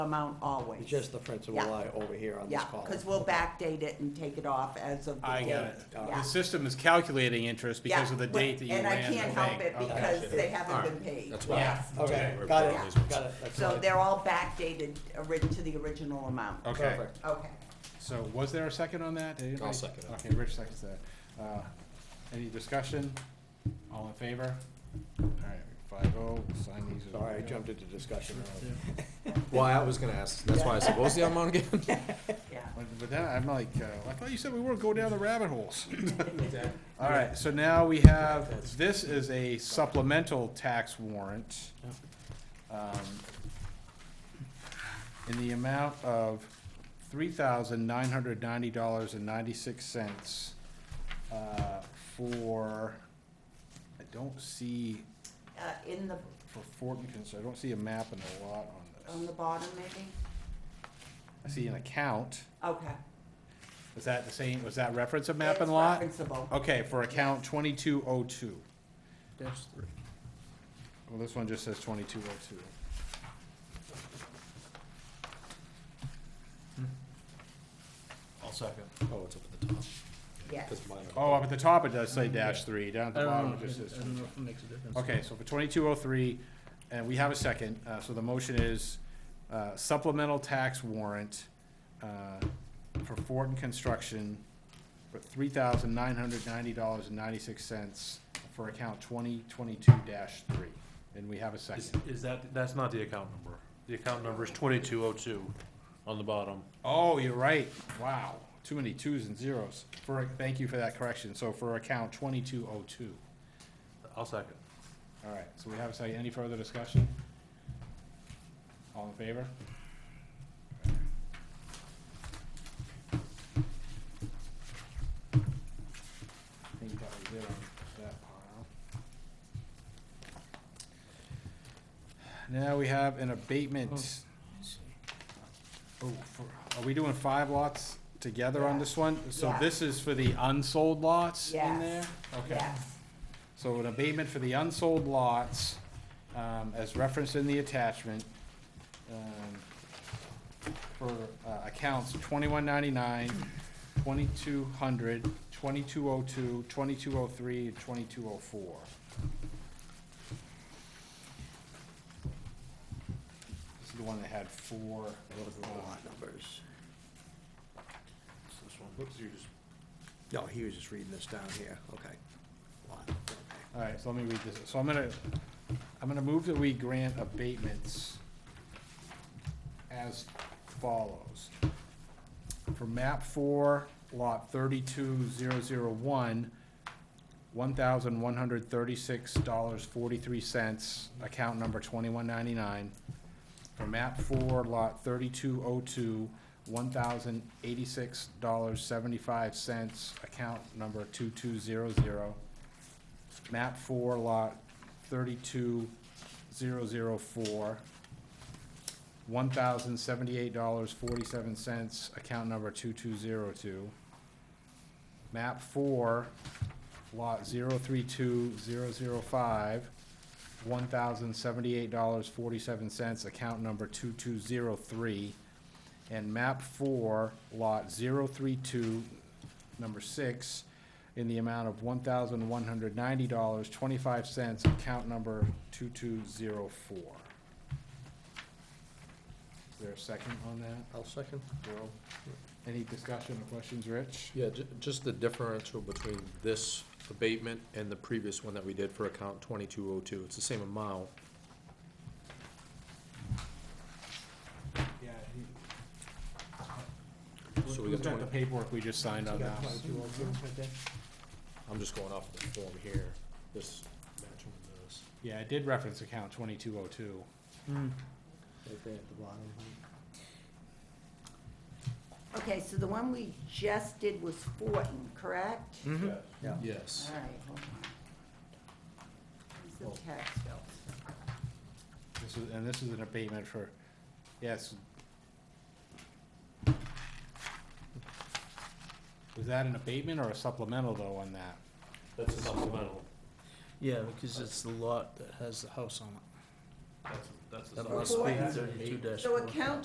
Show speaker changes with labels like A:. A: amount always.
B: It's just the principal
A: Yeah.
B: line over here on this
A: Yeah,
B: column.
A: because we'll backdate it and take it off as of the date.
C: I got it.
B: uh,
A: Yeah.
C: The system is calculating interest because of the
A: Yeah,
C: date that you
A: And
C: ran the
A: I can't help
C: bank.
A: it
C: Okay.
A: because they
C: All
A: haven't
C: right.
A: been paid.
D: That's why.
A: Yes.
B: Okay,
D: we're
B: got
D: voting on these
B: it,
D: ones.
B: got it, that's
A: So
B: fine.
A: they're all backdated orig- to the original amount.
C: Okay,
B: Perfect.
A: Okay.
C: so was there a second on that? Did anybody-
D: second it.
C: Okay, Rich seconds that. Uh, Any discussion? All in favor? All right, five oh, sign these. as
B: Sorry, I
C: well.
B: jumped into discussion.
D: Well, I was gonna ask, that's why I said, what was the amount again?
A: Yeah.
C: But but that, I'm like, uh, I thought you said we weren't going down the rabbit holes. All right, so now we have, this is a supplemental tax warrant. um, In the amount of three thousand nine hundred ninety dollars and ninety-six cents. uh, For, I don't see,
A: Uh, in the,
C: for Fortin, Cons- I don't see a map and a lot on
A: on
C: this.
A: the bottom maybe?
C: I see an account.
A: Okay.
C: Is that the same, was that reference a map
A: It's
C: and lot? Oh,
A: referenceable.
C: Okay, for account twenty-two oh two.
D: Dash three.
C: Well, this one just says twenty-two oh two.
D: I'll second. Oh, it's up at the top.
A: Yes.
D: 'Cause mine are-
C: Oh, up at the top it does say dash three, down at the bottom it just says.
E: Mm-hmm. I don't know if it makes a difference.
C: Okay, so for twenty-two oh three, and we have a second, uh, so the motion is uh, supplemental tax warrant, uh, for Fortin Construction for three thousand nine hundred ninety dollars and ninety-six cents for account twenty twenty-two dash three. And we have a
F: Is,
C: second.
F: is that, that's not the account number. The account number is twenty-two oh two on the bottom.
C: Oh, you're right. Wow, too many twos and zeros. For, thank you for that correction. So for account twenty-two oh two.
F: I'll second.
C: All right, so we have a second. Any further discussion? All in favor? I think that was it on that pile. Now we have an abatement. Oh, for- are we doing five lots together on this one? So
A: Yeah.
C: this is for the unsold lots in
A: Yes.
C: there? Okay.
A: Yes.
C: So an abatement for the unsold lots, um, as referenced in the attachment, um, for, uh, accounts 2199, 2200, 2202, 2203, and twenty-two oh four. This is the one that had four, uh,
B: Those are the lot numbers.
F: Whoops, you just.
B: No, he was just reading this down here, okay. Lot, okay.
C: All right, so let me read this. So I'm gonna, I'm gonna move that we grant abatements as follows. For map four, lot thirty-two zero zero one, one thousand one hundred thirty-six dollars forty-three cents, account number twenty-one ninety-nine. For map four, lot thirty-two oh two, one thousand eighty-six dollars seventy-five cents, account number two-two zero zero map four, lot thirty-two, zero, zero, four, one thousand seventy-eight dollars, forty-seven cents, account number two-two-zero-two. Map four, lot zero-three-two-zero-zero-five, one thousand seventy-eight dollars, forty-seven cents, account number two-two-zero-three. And map four, lot zero-three-two, number six, in the amount of one thousand one hundred ninety dollars, twenty-five cents, account number two-two-zero-four. Is there a second on that,
D: I'll second.
C: Joe? Any discussion or questions, Rich?
D: Yeah, ju- just the differential between this abatement and the previous one that we did for account twenty-two oh two. It's the same amount.
C: Yeah.
D: So we
C: Who's
D: got
C: got the
D: 20
C: paperwork we just signed on that?
D: I'm just going off the form here, this matching with this.
C: Yeah, it did reference account twenty-two oh two.
B: Right there at the bottom.
A: Okay, so the one we just did was Fortin, correct? All
C: Mm-hmm.
B: Yeah.
D: Yes.
A: right, hold on. Where's the tax bills?
C: This is, and this is an abatement for, yes. Was that an abatement or a supplemental though on that?
F: That's a supplemental.
E: Yeah, because it's the lot that has the house on it.
F: That's, that's a
E: That
F: supplemental.
E: must be thirty-two dash
A: So account